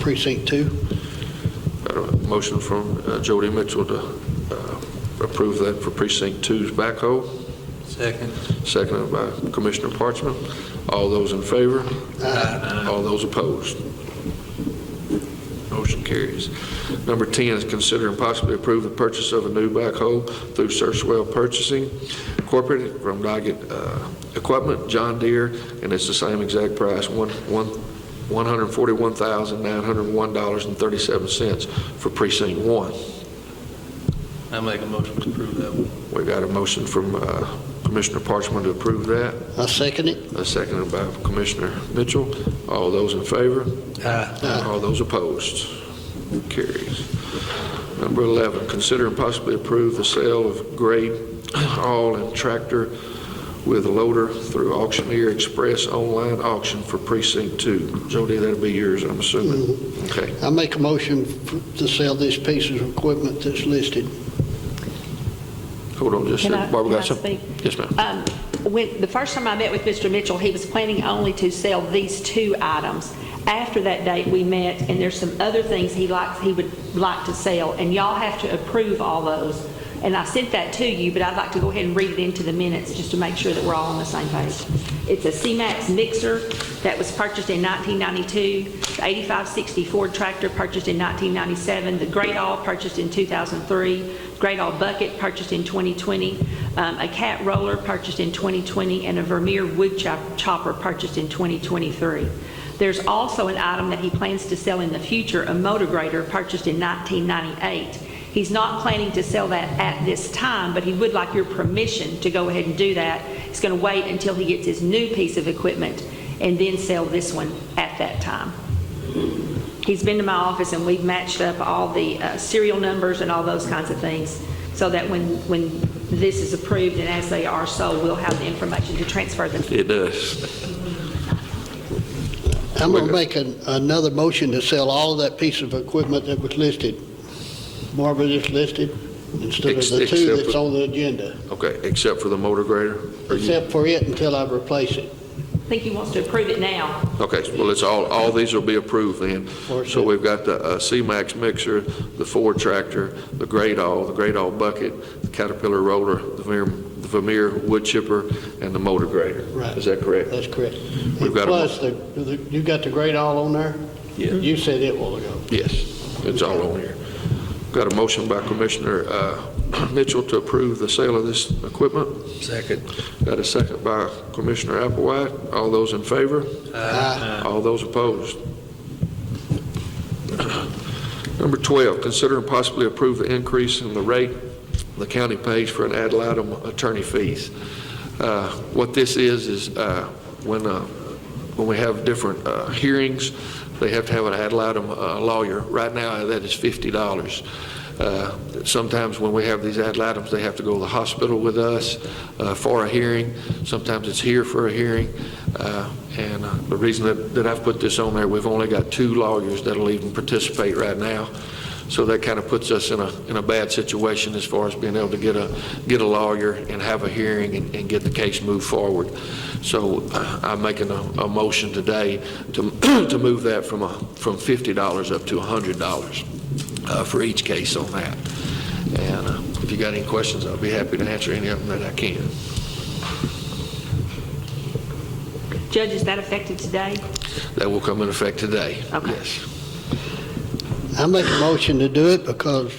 precinct two. Uh, Motion from uh, Jody Mitchell to uh, approve that for Precinct Two's backhoe. Second. Seconded by Commissioner Parchman. All those in favor? All those opposed? Motion carries. Number 10 is consider and possibly approve the purchase of a new backhoe through Searchwell Purchasing Incorporated from Doggett uh, Equipment, John Deere, and it's the same exact price, one one $141,901.37 for Precinct 1. I make a motion to approve that one. We got a motion from uh, Commissioner Parchman to approve that. I second it. Uh, Seconded by Commissioner Mitchell. All those in favor? Aye. All those opposed? Carries. Number 11, consider and possibly approve the sale of grade all and tractor with loader through Auctioneer Express online auction for Precinct 2. Jody, that'll be yours, I'm assuming. Okay. I make a motion f- to sell these pieces of equipment that's listed. Hold on just a Can I- second. Barbara got can I something? Yes, ma'am. Um, When, the first time I met with Mr. Mitchell, he was planning only to sell these two items. After that date, we met, and there's some other things he likes, he would like to sell, and y'all have to approve all those. And I sent that to you, but I'd like to go ahead and read it into the minutes, just to make sure that we're all on the same page. It's a C-Max mixer that was purchased in 1992, the 8560 Ford tractor purchased in 1997, the Great All purchased in 2003, Great All bucket purchased in 2020, um, a cat roller purchased in 2020, and a Vermeer wood chop- chopper purchased in 2023. There's also an item that he plans to sell in the future, a motor grader purchased in 1998. He's not planning to sell that at this time, but he would like your permission to go ahead and do that. He's going to wait until he gets his new piece of equipment and then sell this one at that time. He's been to my office and we've matched up all the uh, serial numbers and all those kinds of things so that when, when this is approved and as they are sold, we'll have the information to transfer them. It does. I'm going to make an- another motion to sell all of that piece of equipment that was listed. Marvin is listed instead of the Ex- two except that's for- on the agenda, Okay, except for the motor grader? Are you- except for it until I replace it. I think he wants to approve it now. Okay, well, it's all, all these will be approved then. Or So so. we've got the uh, C-Max mixer, the Ford tractor, the Great All, the Great All bucket, the Caterpillar roller, the Vermeer- the Vermeer wood chipper, and the motor grader. Right. Uh, Is that correct? That's correct. We've got a- Plus, the, the- you got the grade all on there? Yeah. You said it a while ago. Yes, it's all on here. Got a motion by Commissioner uh, Mitchell to approve the sale of this equipment. Second. Got a second by Commissioner Applewhite. All those in favor? Aye. All those opposed? Number 12, consider and possibly approve the increase in the rate the county pays for an ad litem attorney fees. Uh, What this is, is uh, when, uh, when we have different uh, hearings, they have to have an ad litem uh, lawyer. Right now, that is $50. Uh, Sometimes when we have these ad litems, they have to go to the hospital with us uh, for a hearing. Sometimes it's here for a hearing. Uh, And uh, the reason that, that I've put this on there, we've only got two lawyers that'll even participate right now. So that kind of puts us in a, in a bad situation as far as being able to get a, get a lawyer and have a hearing and, and get the case moved forward. So uh, I'm making a, a motion today to, to move that from a, from $50 up to $100 uh, for each case on that. And uh, if you got any questions, I'll be happy to answer any of them that I can. Judge, is that effective today? That will come in effect today. Okay. Yes. I make a motion to do it because,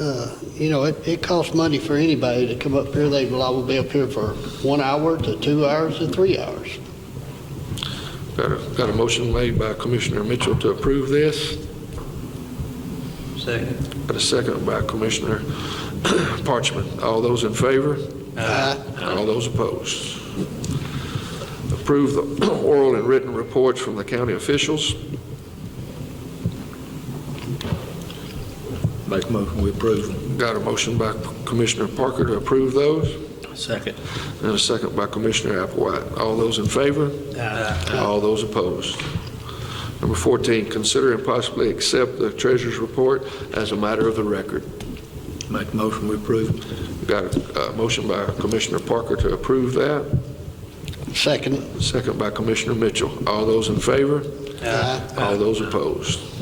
uh, you know, it, it costs money for anybody to come up here. They will all be up here for one hour to two hours to three hours. Got a, got a motion made by Commissioner Mitchell to approve this. Second. Got a second by Commissioner Parchman. All those in favor? Aye. All those opposed? Approve the oral and written reports from the county officials. Make motion, we approve Got a motion by Commissioner Parker to approve those, them. Second. and a second by Commissioner Applewhite. All those in favor? All those opposed? Number 14, consider and possibly accept the treasurer's report as a matter of the record. Make motion, we approve them. Got a uh, motion by Commissioner Parker to approve that, Second. Second by Commissioner Mitchell. All those in favor? Aye. All those opposed?